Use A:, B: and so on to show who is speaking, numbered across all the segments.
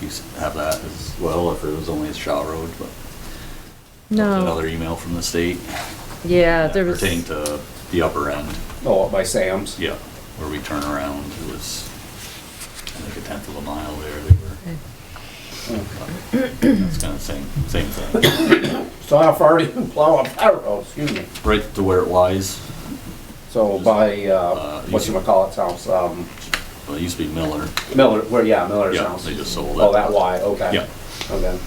A: you s- have that as well, if it was only a Shaw Road, but. that was
B: No,
A: Another email from the state.
B: yeah, there was,
A: Pertaining to the upper end,
C: Oh, by Sam's?
A: yeah, where we turn around, it was, I think a tenth of a mile there, they were. That's kind of same, same thing,
C: So how far do you plow up that road, excuse me?
A: right to where it lies,
C: So by,
A: Uh,
C: uh,
A: you-
C: whatchamacallit's house, um,
A: well, it used to be Miller,
C: Miller, where, yeah, Miller's
A: Yeah,
C: house.
A: they just sold
C: Oh,
A: it.
C: that Y, okay.
A: Yeah.
C: Okay.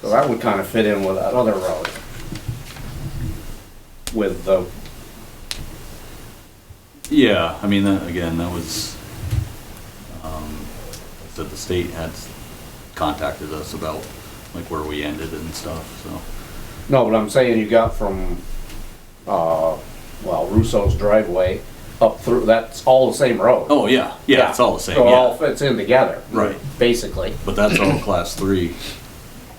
C: So that would kind of fit in with that other road. With the,
A: Yeah, I mean, that, again, that was, um, that the state had contacted us about, like, where we ended and stuff, so.
C: no, but I'm saying you got from, uh, well, Russo's driveway up through, that's all the same road.
A: Oh, yeah, yeah, it's all the same,
C: So it all
A: yeah.
C: fits in together.
A: Right.
C: Basically.
A: But that's all class three,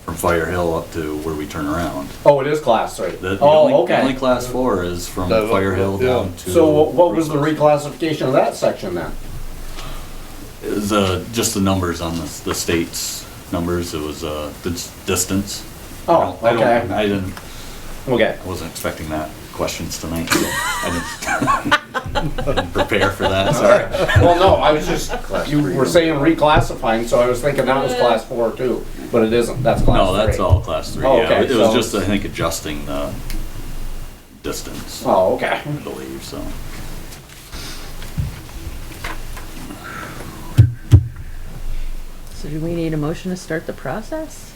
A: from Fire Hill up to where we turn around.
C: Oh, it is class three.
A: The, the only,
C: Oh,
A: the only
C: okay.
A: class four is from
D: That-
A: Fire Hill
D: yeah.
A: down to.
C: So what- what was the
A: Russo's.
C: reclassification of that section then?
A: It was, uh, just the numbers on the, the state's numbers, it was, uh, the dis- distance. I
C: Oh,
A: don't- I don't-
C: okay,
A: I didn't,
C: okay.
A: I wasn't expecting that questions tonight. so I didn't, I didn't prepare for that. Sorry.
C: Well, no, I was just, you were saying reclassifying, so I was thinking that was class four too, but it isn't, that's class three.
A: No, that's all class three.
C: Oh,
A: Yeah,
C: okay,
A: it was
C: so-
A: just I think adjusting the distance, I
C: Oh, okay.
A: believe. So
B: so do we need a motion to start the process?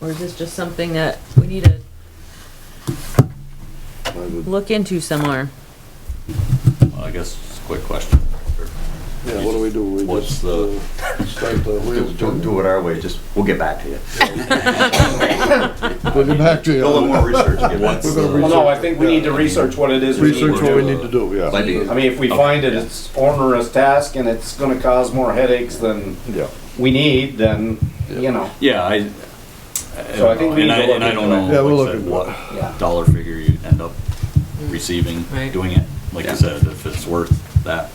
B: Or is this just something that we need to look into some more?
A: well, I guess it's a quick question.
D: Yeah, what do we do? We
A: What's
D: just,
A: the-
D: uh, Start the wheels
E: Do,
D: turning.
E: do it our way, just, we'll get back to you.
D: We'll get back to
E: Do a little
D: you.
E: more research, get back to
D: We're gonna
E: you.
C: Well, no, I think we need to research what it is we need
D: Research what we
C: to
D: need to do, yeah.
E: Might be-
C: do. I mean, if we find it, it's onerous task and it's gonna cause more headaches than
D: Yeah.
C: we need, then, you know,
A: Yeah, I.
C: So I think
A: and
C: we need to
A: I,
C: look
A: and I don't
C: into it.
A: know.
D: Yeah, we'll
A: like I
D: look
A: said,
D: into
A: what
C: yeah.
A: dollar figure you end up receiving
B: Right.
A: doing it. Like you said, if it's worth that.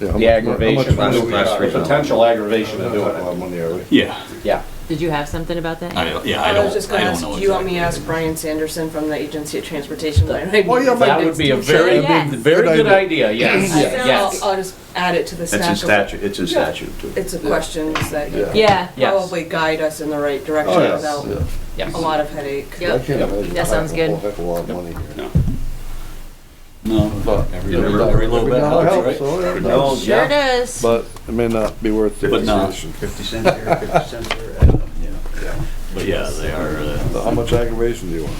D: Yeah, how
C: The
D: much mo- how
C: aggravation,
D: much money we got?
C: the potential aggravation of
D: Not a
C: doing
D: lot
C: it,
D: of money, are we?
A: Yeah,
C: yeah.
B: Did you have something about that?
A: I don't. Yeah, I
F: I
A: don't.
F: was just gonna
A: I don't
F: ask,
A: know
F: do you want me to
A: exactly.
F: ask Brian Sanderson from the Agency of Transportation? Well,
D: yeah, but-
C: That would be a very,
B: Yes.
C: very good idea, yes, yes.
F: I'll just add it to the
E: It's in
F: stack of,
E: statute, it's in statute too.
F: it's a questions that you
D: Yeah.
B: Yeah,
C: Yes.
F: probably guide us in the right
D: Oh,
F: direction
D: yeah,
F: without
D: yeah.
F: a lot of headache.
B: Yep.
D: I can't imagine.
B: That sounds
D: a heck of
B: good.
D: a- Heck of a lot of money here.
A: No,
D: But
A: every, every, every little bit
D: dollar
A: helps, right?
D: so, yeah, it
C: No,
D: does.
B: sure
C: yeah.
B: does.
D: But it may not be worth the
A: But not-
D: aggravation.
E: Fifty cents here, fifty cents there. I don't know.
A: But yeah, they are. Uh,
D: So How much aggravation do you want?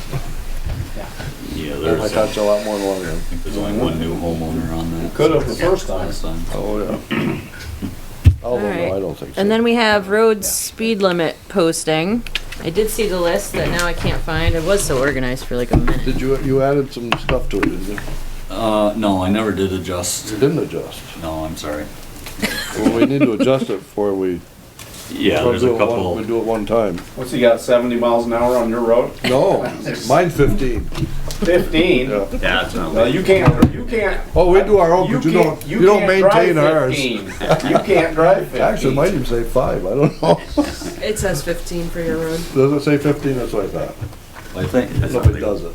A: yeah,
D: That
A: there's.
D: might cost you a lot more than one of them.
A: I think there's only one new homeowner on that.
C: Could have the first time.
A: Last time.
D: Oh, yeah. Although,
B: Alright.
D: no, I don't think so.
B: And then we have road speed limit posting. I did see the list that now I can't find. It was so organized for like a minute.
D: Did you, you added some stuff to it, didn't you?
A: Uh, no, I never did adjust.
D: You didn't adjust.
A: No, I'm sorry.
D: Well, we need to adjust it before we.
A: Yeah,
D: before
A: there's
D: we do
A: a
D: it one-
A: couple.
D: We do it one time.
C: What's he got, 70 miles an hour on your road?
D: No, mine fifteen.
C: 15?
D: Yeah.
E: Yeah, that's not.
C: Well, you can't, you can't.
D: Oh, we do our own, but you
C: can't-
D: don't, you don't
C: can't drive
D: maintain ours.
C: 15. You can't drive 15.
D: Actually, mine even say five, I don't know.
F: It says 15 for your road.
D: Does it say fifteen? That's what I thought.
A: I think
D: Nobody does it.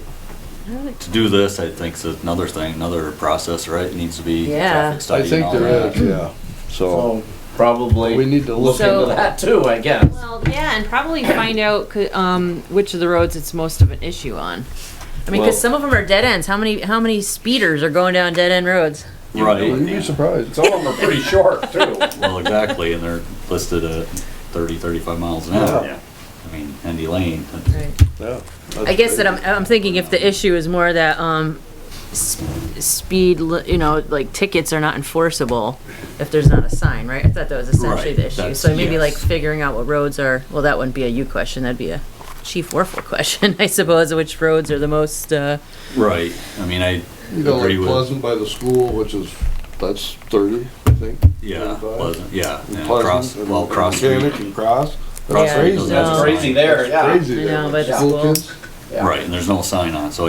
A: to do this, I think is another thing, another process, right? It needs to be
B: Yeah.
A: traffic
D: I
A: study and
D: think
A: all
D: there
A: that.
D: is, yeah. So,
C: So probably
D: we need to
C: look
D: look,
B: So-
C: into that too, I guess.
B: Well, yeah, and probably find out, c- um, which of the roads it's most of an issue on. I mean,
C: Well-
B: cause some of them are dead ends. How many, how many speeders are going down dead end roads?
D: you'd
A: Right,
D: be surprised.
C: Some of them are pretty short too.
A: well, exactly, and they're listed at 30, 35 miles an hour.
D: Yeah.
A: I mean, Andy Lane, that's-
D: Yeah.
B: I guess that I'm, I'm thinking if the issue is more that, um, s- speed, li- you know, like tickets are not enforceable if there's not a sign, right? I thought that was essentially
A: Right,
B: the issue.
A: that's-
B: So maybe like
A: yes.
B: figuring out what roads are, well, that wouldn't be a you question, that'd be a Chief Warfel question, I suppose, which roads are the most, uh,
A: right, I mean, I
D: You know, like
A: agree with,
D: Pleasant by the school, which is, that's thirty, I think. And
A: yeah,
D: Pleasant.
A: Pleasant, yeah, and
D: Pleasant
A: cross,
D: and
A: well, cross street,
D: Mechanic and Cross.
B: Yeah,
D: That's crazy.
A: no.
C: That's crazy there,
D: That's
C: yeah.
D: Crazy
B: I
D: there.
B: know, but
D: School
B: schools-
D: kids.
C: Yeah.
A: right, and there's no sign on, so